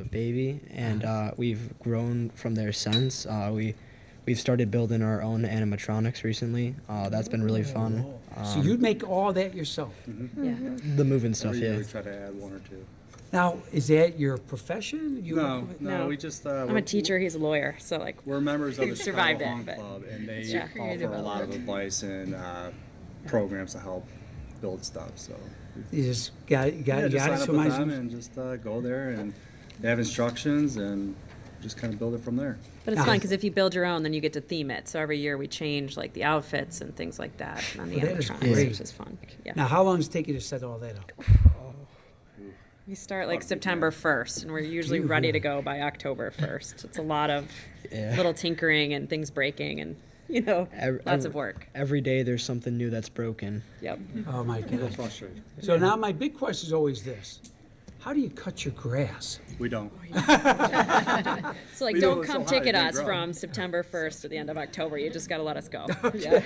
a baby, and uh, we've grown from there since. Uh, we we've started building our own animatronics recently. Uh, that's been really fun. Um, So you make all that yourself? Mm-hmm. Yeah. The moving stuff, Every year yeah. we try to add one or two. Now, is that your profession? You No, work with- no, No. we just, uh, I'm we're- a teacher, he's a lawyer, so like, We're members of the survived Chicago Honk it, but- Club, and they Yeah. offer a lot of advice and, uh, programs to help build stuff, so. You just got, Yeah, got, just got sign it, up so with might them as- and just, uh, go there and they have instructions and just kind of build it from there. but it's Yeah. fun because if you build your own, then you get to theme it. So every year we change like the outfits and things like that on the Well, that is animatronics, great. which is fun. Yeah. Now, how long does it take you to set all that up? We start like September 1st and we're usually ready to go by October 1st. It's a lot of Yeah. little tinkering and things breaking and, you know, Ev- lots ev- of work. Every day there's something new that's broken. Yep. Oh, my God. Frustrating. So now my big question is always this. How do you cut your grass? We don't. So like, We do don't it so come high, ticket it didn't us grow. from September 1st to the end of October. You just got to let us go. Yeah.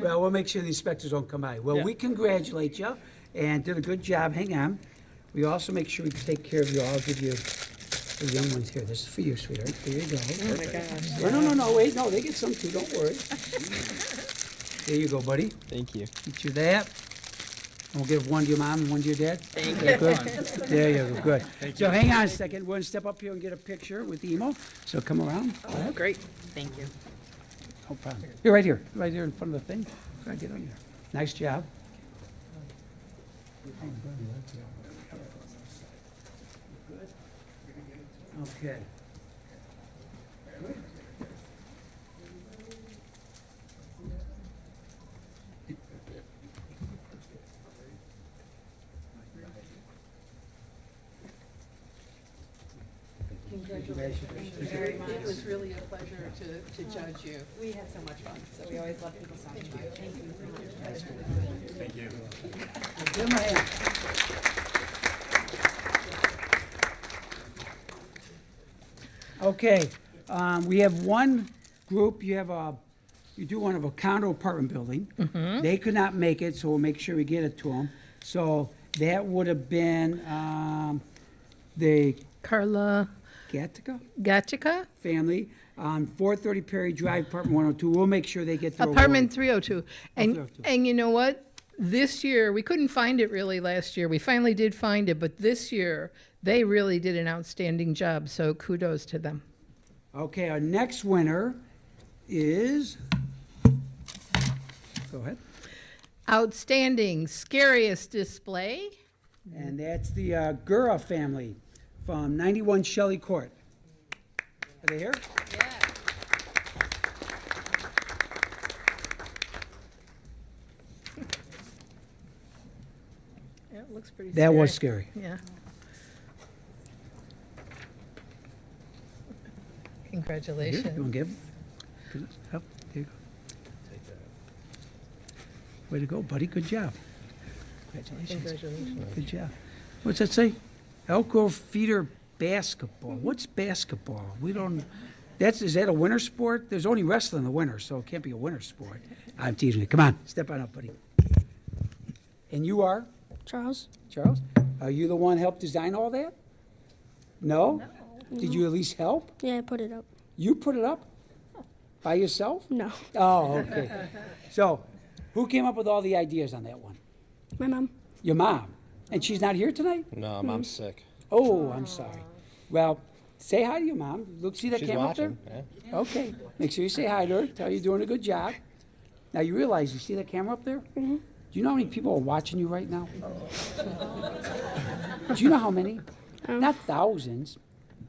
Well, we'll make sure the inspectors don't come by. Well, we congratulate you and did a good job. Hang on. We also make sure we take care of you. I'll give you the young ones here. This is for you, sweetheart. There you go. Oh my gosh. No, no, no, no, wait, no, they get some too, don't worry. There you go, buddy, Thank you. eat you that. And we'll give one to your mom and one to your dad. Thank you. There you go, good. So hang on a second, we're gonna step up here and get a picture with Emo, so come around, Oh, great. Thank you. no problem. You're right here, right here in front of the thing, Go ahead, get on there. Nice job. Okay. Congratulations very much. It was really a pleasure to, to judge you. Oh, We had so much fun, so we always love people so much. Thank you. Give him a hand. Okay, um, we have one group, you have a, you do one of a condo apartment building. They could not make it, so we'll make sure we get it to them. So that would have been, um, the Carla Gatica Gatica, oh family on four thirty Perry Drive, apartment one oh two. We'll make sure they get their award. apartment 302. And, 302. and you know what? This year, we couldn't find it really last year. We finally did find it, but this year, they really did an outstanding job, so kudos to them. Okay, our next winner is, go ahead. Outstanding, scariest display. And that's the uh, Gura family from 91 Shelley Court. Are they here? It looks pretty That was scary. Yeah. Here, You Congratulations. want to give? 'em? Up, there you go. Way to go, buddy. Good job. Congratulations. Congratulations. Good job. What's that say? Elk Grove feeder basketball. What's basketball? We don't, that's, is that a winter sport? There's only wrestling in the winter, so it can't be a winter sport. I'm teasing you. Come on, step on up, buddy. And you are? Charles? Charles, are you the one helped design all that? No? Did you at least help? Yeah, I put it up. You put it up? By yourself? No, Oh, okay. So, who came up with all the ideas on that one? my mom. Your mom. And she's not here tonight? No, Mm-hmm. mom's sick. Oh, I'm sorry. Well, say hi to your mom. Look, see that She's camera up there? watching. Yeah. Okay. Make sure you say hi to her. Tell her you're doing a good job. Now you realize you see that camera up there? Do you know how many people are watching you right now? Do you know how many? Not thousands,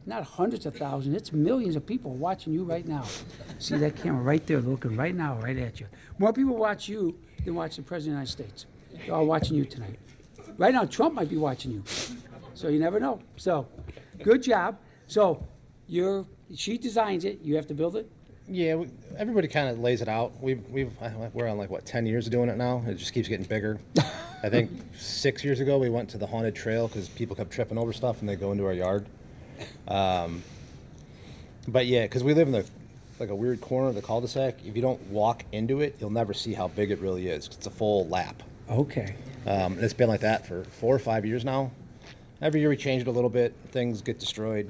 not hundreds of thousands. It's millions of people watching you right now. See that camera right there, looking right now, right at you. More people watch you than watch the president of the United States. They're all watching you tonight. Right now, Trump might be watching you. So you never know. So, good job. So, you're she designs it. You have to build it. Yeah, we, everybody kind of lays it out. We've, we've, I- we're on like, what, 10 years of doing it now? It just keeps getting bigger. I think six years ago, we went to the haunted trail because people kept tripping over stuff and they go into our yard. Um, but yeah, because we live in the, like a weird corner of the cul-de-sac. If you don't walk into it, you'll never see how big it really is. 'cause It's a full lap. Okay. Um, and it's been like that for four or five years now. Every year we change it a little bit. Things get destroyed.